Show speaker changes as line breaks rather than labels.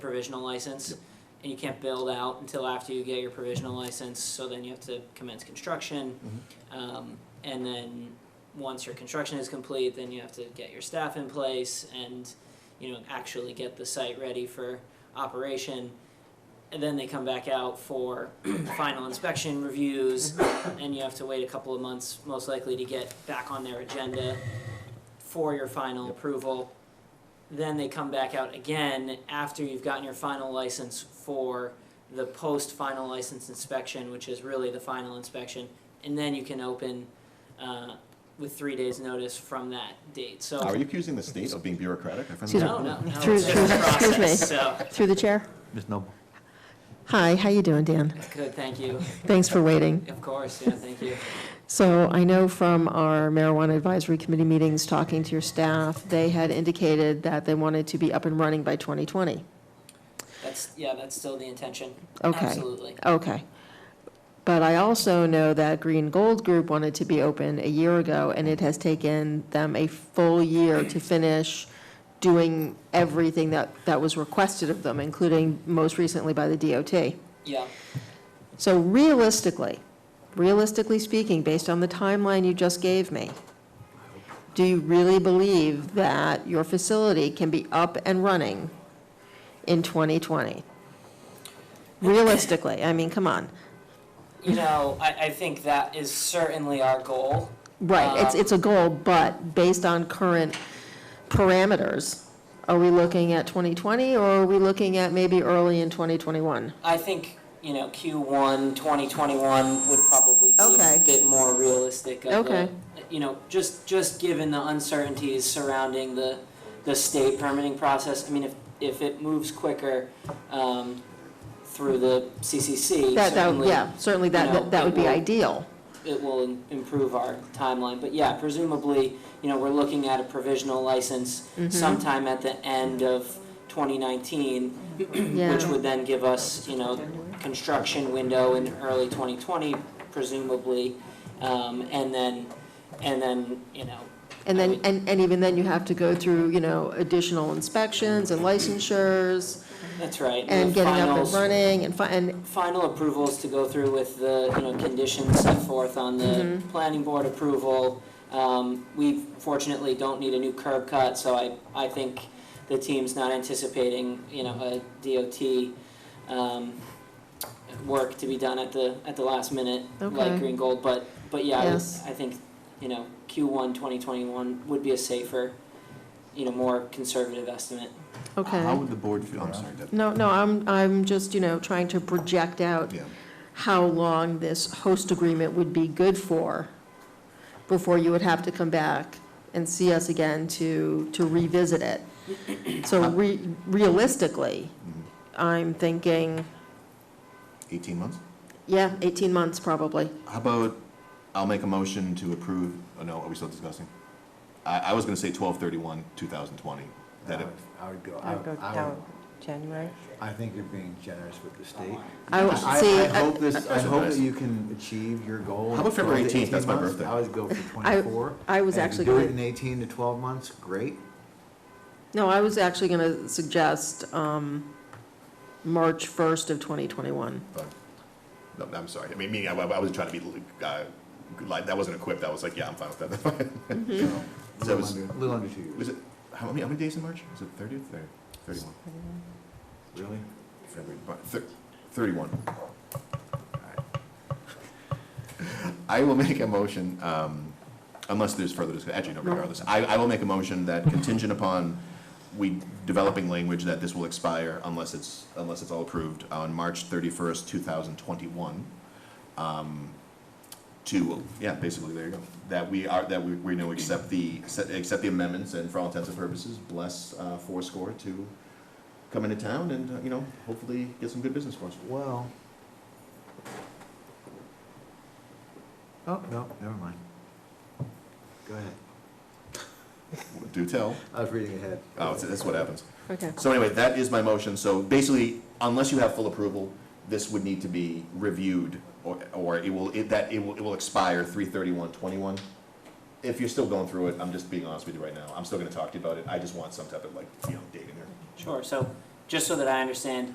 provisional license, and you can't build out until after you get your provisional license, so then you have to commence construction. Um, and then, once your construction is complete, then you have to get your staff in place and, you know, actually get the site ready for operation. And then they come back out for final inspection reviews, and you have to wait a couple of months, most likely, to get back on their agenda for your final approval. Then they come back out again after you've gotten your final license for the post-final license inspection, which is really the final inspection, and then you can open uh, with three days' notice from that date. So
Are you accusing the state of being bureaucratic? I find
Excuse
that-
me.
no, no, no.
Through-
it's just a
through- excuse me.
process, So
Through the chair.
Ms. Noble?
Hi, how you doing, Dan?
good, thank you.
Thanks for waiting.
Of course, yeah, thank you.
So I know from our marijuana advisory committee meetings, talking to your staff, they had indicated that they wanted to be up and running by 2020.
That's yeah, that's still the intention.
Okay.
Absolutely.
Okay. But I also know that Green Gold Group wanted to be open a year ago, and it has taken them a full year to finish doing everything that, that was requested of them, including most recently by the DOT.
Yeah.
So realistically, realistically speaking, based on the timeline you just gave me, do you really believe that your facility can be up and running in 2020? Realistically, I mean, come on.
You know, I, I think that is certainly our goal.
Right, it's, it's a goal, but based on current parameters, are we looking at 2020 or are we looking at maybe early in 2021?
I think, you know, Q1 2021 would probably be
Okay.
a bit more realistic of a-
Okay.
you know, just, just given the uncertainties surrounding the, the state permitting process. I mean, if, if it moves quicker um, through the CCC,
That, that,
certainly
yeah, certainly
you know,
that, that- that would be
it will-
ideal.
it will im- improve our timeline. But yeah, presumably, you know, we're looking at a provisional license
Mm-hmm.
sometime at the end of 2019,
Yeah.
which would then give us, you know, construction window in early 2020, presumably, um, and then, and then, you know,
And
I
then,
would-
and, and even then, you have to go through, you know, additional inspections and licensures,
that's right.
and
the
getting up and
finals-
running, and, fi- and,
Final approvals to go through with the, you know, conditions set forth on the
Mm-hmm.
planning board approval. Um, we fortunately don't need a new curb cut, so I, I think the team's not anticipating, you know, a DOT, um, work to be done at the, at the last minute, like
Okay.
Green Gold, but, but yeah, I would-
Yes.
I think, you know, Q1 2021 would be a safer, you know, more conservative estimate.
How
okay.
would the board feel? I'm sorry, Deb.
No, no, I'm, I'm just, you know, trying to project out
Yeah.
how long this host agreement would be good for before you would have to come back and see us again to, to revisit it. So re- realistically,
Mm-hmm.
I'm thinking,
18 months?
yeah, 18 months probably.
How about, I'll make a motion to approve, oh no, are we still discussing? I, I was gonna say 12/31, 2020. That
I
it,
would- I would go, I
I'd
would,
go
I
down
would-
January.
I think you're being generous with the state.
I, would
I,
Oh, see, uh,
I
I-
hope this, I
That's
hope
nice.
that you can achieve your goal.
How about
in
February
12 to
18th? That's my
18 months.
birthday.
I always go for
I-
twenty-four.
I was
and if you
actually
do
gonna-
it in eighteen to twelve months, great.
No, I was actually going to suggest um, March 1st of 2021.
no, I'm sorry, I mean, meaning I, I wasn't trying to be, uh, like, that wasn't equipped, I was like, yeah, I'm fine with that.
you know,
So it
A little
was-
under, a little under two years.
Was it, how many, how many days in March? Is it 30th or 31?
Really?
February, Mar- thir- 31. I will make a motion, um, unless there's further discussion, actually, no, regardless. I, I will make a motion that contingent upon we developing language that this will expire unless it's, unless it's all approved on March 31st, 2021. Um, To, yeah, basically, there you go. That we are, that we, we know, accept the, accept the amendments and for all intents and purposes, bless uh, Fourscore to come into town and, uh, you know, hopefully get some good business for us.
Well. Oh, no, never mind. Go ahead.
Do tell.
I was reading ahead.
Oh, it's- that's what happens.
Okay.
So anyway, that is my motion. So basically, unless you have full approval, this would need to be reviewed or, or it will, it, that, it will, it will expire three thirty-one twenty-one. If you're still going through it, I'm just being honest with you right now. I'm still gonna talk to you about it. I just want some type of like, you know, date in there.
Sure, so just so that I understand